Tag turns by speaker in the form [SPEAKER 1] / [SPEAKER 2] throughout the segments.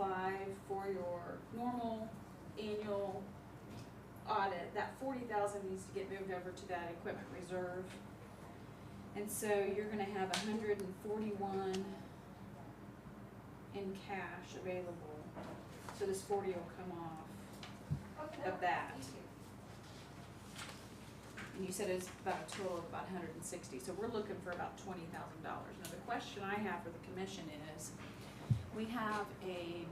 [SPEAKER 1] five for your normal annual audit, that forty thousand needs to get moved over to that equipment reserve. And so you're gonna have a hundred and forty-one in cash available, so this forty will come off of that. And you said it's about a total of about hundred and sixty, so we're looking for about twenty thousand dollars. Now, the question I have for the commission is, we have a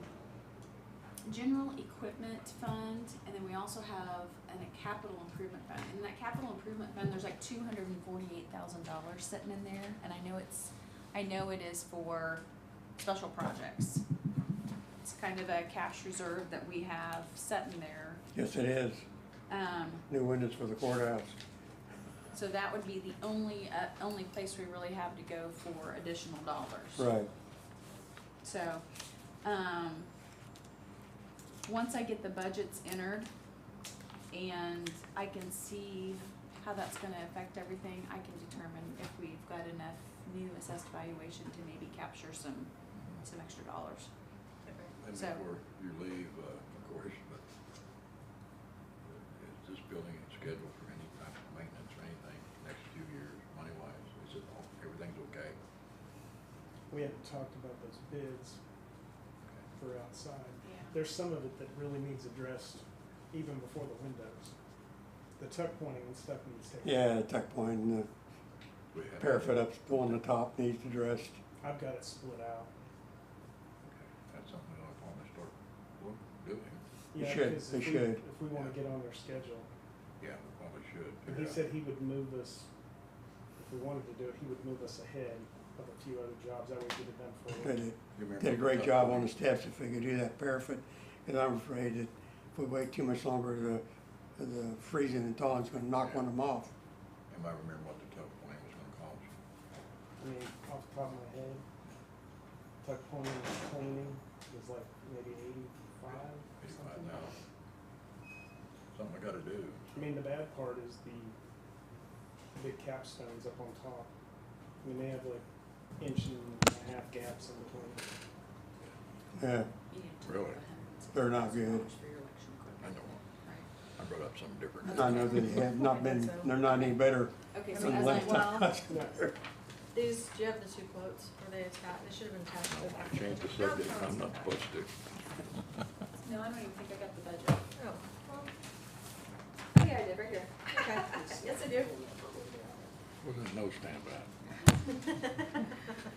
[SPEAKER 1] general equipment fund, and then we also have an- a capital improvement fund. In that capital improvement fund, there's like two hundred and forty-eight thousand dollars sitting in there, and I know it's, I know it is for special projects. It's kind of a cash reserve that we have set in there.
[SPEAKER 2] Yes, it is.
[SPEAKER 1] Um,
[SPEAKER 2] New windows for the courthouse.
[SPEAKER 1] so that would be the only, uh, only place we really have to go for additional dollars.
[SPEAKER 2] Right.
[SPEAKER 1] So, um, once I get the budgets entered and I can see how that's gonna affect everything, I can determine if we've got enough new assessed valuation to maybe capture some, some extra dollars.
[SPEAKER 3] And
[SPEAKER 1] So-
[SPEAKER 3] before you leave, uh, of course, but is this building scheduled for any type of maintenance or anything next few years, money wise? Is it all, everything's okay?
[SPEAKER 4] We haven't talked about those bids for outside.
[SPEAKER 1] Yeah.
[SPEAKER 4] There's some of it that really needs addressed even before the windows. The tuck pointing and stuff needs to.
[SPEAKER 2] Yeah, the tuck point and
[SPEAKER 3] We
[SPEAKER 2] the
[SPEAKER 3] have-
[SPEAKER 2] parapet up on the top needs addressed.
[SPEAKER 4] I've got it split out.
[SPEAKER 3] Okay, That's something we ought to probably start wo- doing.
[SPEAKER 2] You
[SPEAKER 4] Yeah,
[SPEAKER 2] should,
[SPEAKER 4] 'cause
[SPEAKER 2] they
[SPEAKER 4] if we-
[SPEAKER 2] should.
[SPEAKER 4] If we wanna get on their schedule.
[SPEAKER 3] Yeah, we probably should.
[SPEAKER 4] And he
[SPEAKER 3] figure out-
[SPEAKER 4] said he would move us, if we wanted to do it, he would move us ahead of a few other jobs. That way we get it done for
[SPEAKER 2] Did
[SPEAKER 4] you.
[SPEAKER 2] it-
[SPEAKER 3] You remember
[SPEAKER 2] did a great
[SPEAKER 3] the
[SPEAKER 2] job on the
[SPEAKER 3] tuck
[SPEAKER 2] steps if they could do that parapet. Cause I'm afraid that if we wait too much longer, the, the freezing and thawing's gonna knock one of them off.
[SPEAKER 3] point? Am I remembering what the tuck point was gonna cost?
[SPEAKER 4] I mean, off the top of my head, tuck pointing and cleaning is like maybe eighty-five or
[SPEAKER 3] Eighty-five
[SPEAKER 4] something.
[SPEAKER 3] thousand? Something I gotta do.
[SPEAKER 4] I mean, the bad part is the big capstones up on top. I mean, they have like inch and a half gaps in between.
[SPEAKER 2] Yeah,
[SPEAKER 1] You need to
[SPEAKER 3] Really?
[SPEAKER 1] have $160,000
[SPEAKER 2] They're not
[SPEAKER 1] for
[SPEAKER 2] good.
[SPEAKER 1] your election equipment.
[SPEAKER 3] I know,
[SPEAKER 1] Right.
[SPEAKER 3] I brought up something different.
[SPEAKER 2] I know that they have not been, they're not any better
[SPEAKER 1] Okay, so
[SPEAKER 2] than the
[SPEAKER 1] as I,
[SPEAKER 2] last
[SPEAKER 1] well,
[SPEAKER 2] time.
[SPEAKER 4] No,
[SPEAKER 5] These, do you have the two quotes? Were they
[SPEAKER 1] Uh,
[SPEAKER 5] attached? They should have been attached to the back.
[SPEAKER 3] I changed the subject, I'm not supposed to.
[SPEAKER 1] no, I don't even think I got the budget.
[SPEAKER 5] Oh, well,
[SPEAKER 1] Yeah, I did, right here.
[SPEAKER 5] okay.
[SPEAKER 1] Yes, I do.
[SPEAKER 3] Well, there's no standby.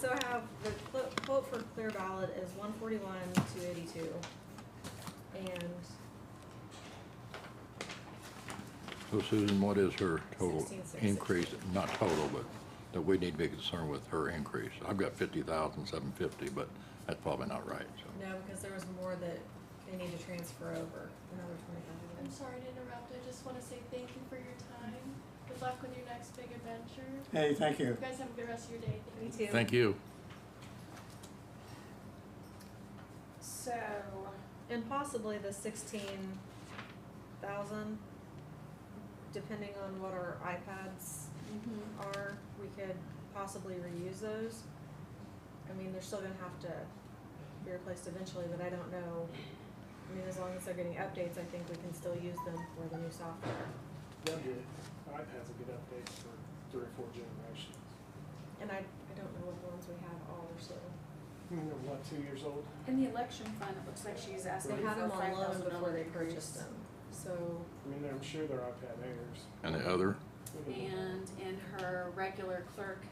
[SPEAKER 5] So I have the clo- quote for clear ballot is one forty-one, two eighty-two. And
[SPEAKER 3] So Susan, what is her total
[SPEAKER 5] 16,660.
[SPEAKER 3] increase, not total, but that we need to be concerned with her increase? I've got fifty thousand, seven fifty, but that's probably not right, so.
[SPEAKER 5] no, because there was more that they need to transfer over, another twenty
[SPEAKER 6] I'm
[SPEAKER 5] thousand.
[SPEAKER 6] sorry to interrupt. I just want to say thank you for your time. Good luck with your next big adventure.
[SPEAKER 2] Hey, thank you.
[SPEAKER 6] You guys have a good rest of your day. Thank
[SPEAKER 5] Me too.
[SPEAKER 3] Thank you.
[SPEAKER 1] So,
[SPEAKER 5] And possibly the sixteen thousand, depending on what our iPads
[SPEAKER 1] mhm.
[SPEAKER 5] are, we could possibly reuse those. I mean, they're still gonna have to be replaced eventually, but I don't know. I mean, as long as they're getting updates, I think we can still use them for the new software.
[SPEAKER 4] they'll get it. iPad's a good update for three or four generations.
[SPEAKER 5] And I, I don't know what ones we have all or so.
[SPEAKER 4] I mean, they're what, two years old?
[SPEAKER 1] in the election fund, it looks like she's asking
[SPEAKER 5] They had
[SPEAKER 1] for a
[SPEAKER 5] them on
[SPEAKER 1] five
[SPEAKER 5] loan
[SPEAKER 1] thousand
[SPEAKER 5] before
[SPEAKER 1] dollar
[SPEAKER 5] they
[SPEAKER 1] increase.
[SPEAKER 5] purchased them, so.
[SPEAKER 4] I mean, they're, I'm sure they're iPad Airs.
[SPEAKER 3] And the other,
[SPEAKER 4] Look at them.
[SPEAKER 1] And in her regular clerk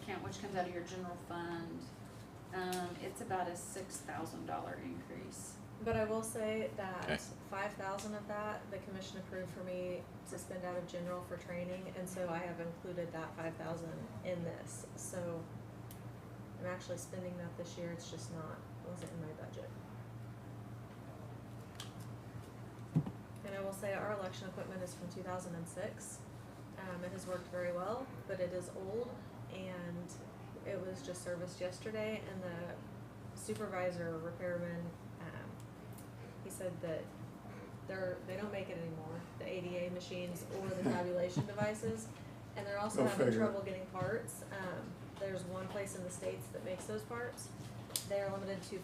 [SPEAKER 1] account, which comes out of your general fund, um, it's about a six thousand dollar increase.
[SPEAKER 5] But I will say
[SPEAKER 3] Okay.
[SPEAKER 5] that five thousand of that, the commission approved for me to spend out of general for training, and so I have included that five thousand in this, so. I'm actually spending that this year, it's just not, wasn't in my budget. And I will say our election equipment is from two thousand and six, um, it has worked very well, but it is old, and it was just serviced yesterday, and the supervisor repairman, um, he said that they're, they don't make it anymore, the ADA machines or the tabulation devices. And they're also
[SPEAKER 2] Go
[SPEAKER 5] having
[SPEAKER 2] figure.
[SPEAKER 5] trouble getting parts. Um, there's one place in the States that makes those parts. They are limited to